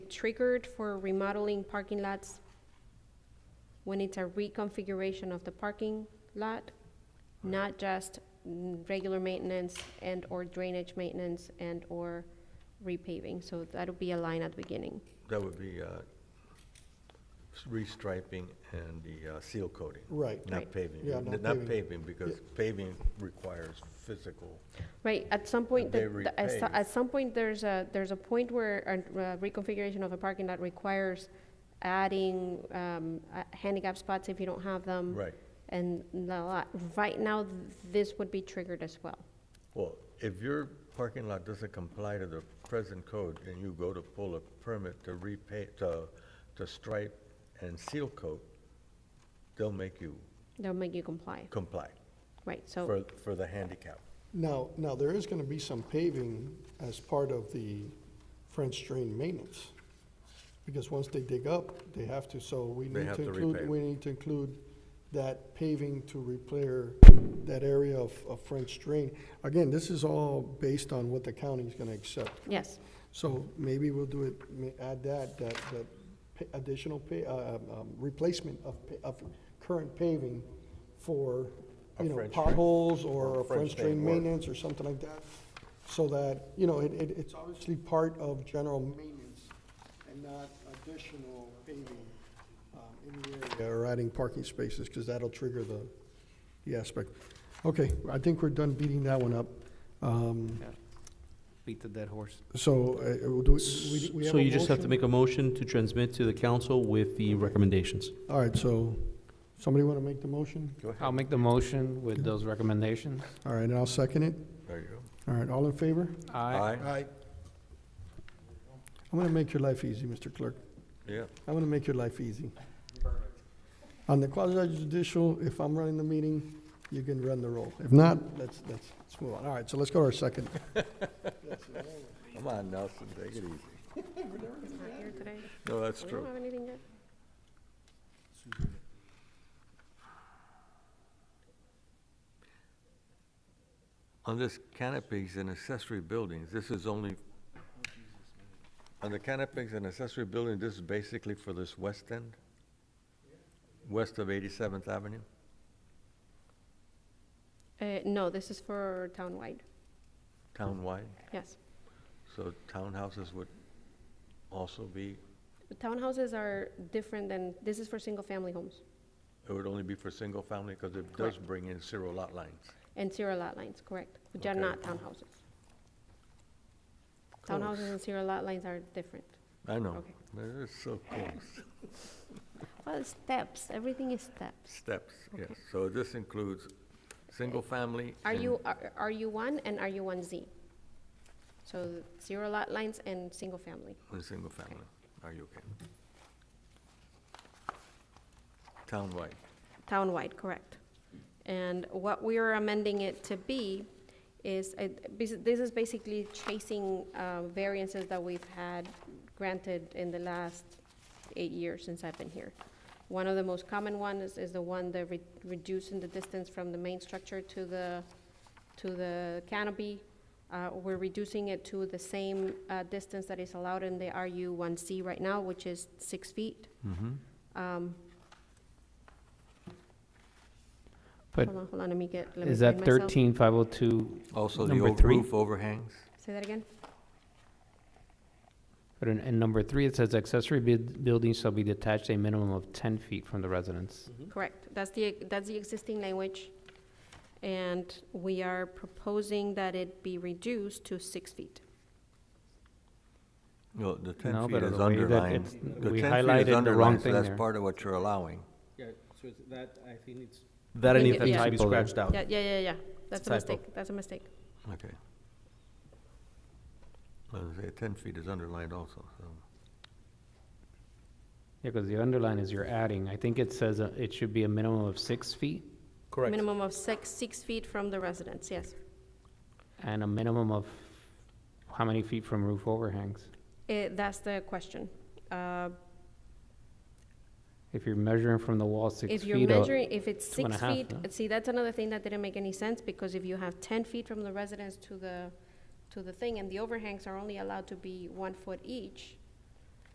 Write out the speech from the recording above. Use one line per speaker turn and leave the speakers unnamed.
triggered for remodeling parking lots when it's a reconfiguration of the parking lot, not just mm, regular maintenance and/or drainage maintenance and/or repaving. So that'll be a line at the beginning.
That would be uh, s- restriping and the uh, seal coating.
Right.
Not
Right.
paving.
Yeah,
N-
not
Not
paving.
paving, because paving requires physical.
Right, at some point,
They
the- the- at so-
repave.
at some point, there's a, there's a point where a uh, reconfiguration of a parking lot requires adding um, uh, handicap spots if you don't have them.
Right.
And the lot, right now, th- this would be triggered as well.
Well, if your parking lot doesn't comply to the present code and you go to pull a permit to repay, to, to stripe and seal coat, they'll make you
They'll make you comply,
comply
right, so,
for, for the handicap.
Now, now, there is gonna be some paving as part of the French drain maintenance. Because once they dig up, they have to, so we
They
need
have
to
to
include,
repave.
we need to include that paving to repair that area of, of French drain. Again, this is all based on what the county's gonna accept.
yes,
So maybe we'll do it, ma- add that, that, that pa- additional pa, uh, um, replacement of, pa- of current paving for,
A
you know,
French drain.
potholes or
Or
a French
French drain
drain
work.
maintenance or something like that. So that, you know, it, it, it's obviously part of general maintenance and not additional paving, um, in the area. Or adding parking spaces, because that'll trigger the, the aspect. Okay, I think we're done beating that one up. Um,
beat the dead horse.
so, uh, we'll do, we, we have
So
a
you just have to
motion?
make a motion to transmit to the council with the recommendations.
All right, so, somebody want to make the motion?
Go ahead.
I'll make the motion with those recommendations.
All right, and I'll second it.
There you go.
All right, all in favor?
Aye.
Aye.
I'm going to make your life easy, Mr. Clerk.
Yeah.
I'm going to make your life easy. On the quasi judicial, if I'm running the meeting, you can run the roll. If not, let's, let's, let's move on. All right, so let's go to our second.
Come on, Nelson, take it easy. No, that's
We don't
true.
have anything yet.
On this canopies and accessory buildings, this is only, on the canopies and accessory building, this is basically for this west end? West of 87th Avenue?
Uh, No, this is for townwide,
townwide,
yes.
so townhouses would also be,
Townhouses are different than, this is for single-family homes
it would only be for single-family, because it does
Correct.
bring in zero lot lines.
and zero lot lines, correct, which are
Okay.
not townhouses. Townhouses and zero lot lines are different.
I know,
Okay.
they're so close,
Well, steps, everything is steps.
steps, yes, so this includes single-family.
Are
and-
you, are are you one and are you one Z? So zero lot lines and single family.
And single-family, are you okay? Townwide,
Townwide, correct. And what we are amending it to be is, it- this this is basically chasing uh, variances that we've had granted in the last eight years since I've been here. One of the most common ones is the one that re- reducing the distance from the main structure to the, to the canopy. Uh, We're reducing it to the same uh, distance that is allowed in the RU1C right now, which is six feet. Um,
But
Hold on, hold on, let me get, let me
is
find
that
myself.
thirteen five oh two,
also the
Number
old
three.
roof overhangs,
Say that again?
but in, in number three, it says accessory build, buildings shall be detached a minimum of ten feet from the residence.
Correct. That's the, that's the existing language. And we are proposing that it be reduced to six feet.
no, the ten
No,
feet
but
is
the way that
underlined.
it's-
The
we
10 feet is
highlighted the wrong
underlined, so
thing
That's
there.
part of what you're allowing.
Yeah, so it's that, I think it's,
That
I need to be
to be
Typo there.
scratched out.
Yeah, yeah, yeah, yeah. That's a
Typo.
mistake. That's a mistake.
Okay. I was gonna say, ten feet is underlined also, so,
Yeah, because the underline is you're adding. I think it says uh, it should be a minimum of six feet
Correct.
Minimum of six, six feet from the residence, yes.
and a minimum of how many feet from roof overhangs?
Eh, that's the question. Uh,
If you're measuring from the wall six feet.
If you're
uh,
measuring, if it's
two and
six
a half,
feet,
no?
see, that's another thing that didn't make any sense, because if you have ten feet from the residence to the, to the thing, and the overhangs are only allowed to be one foot each,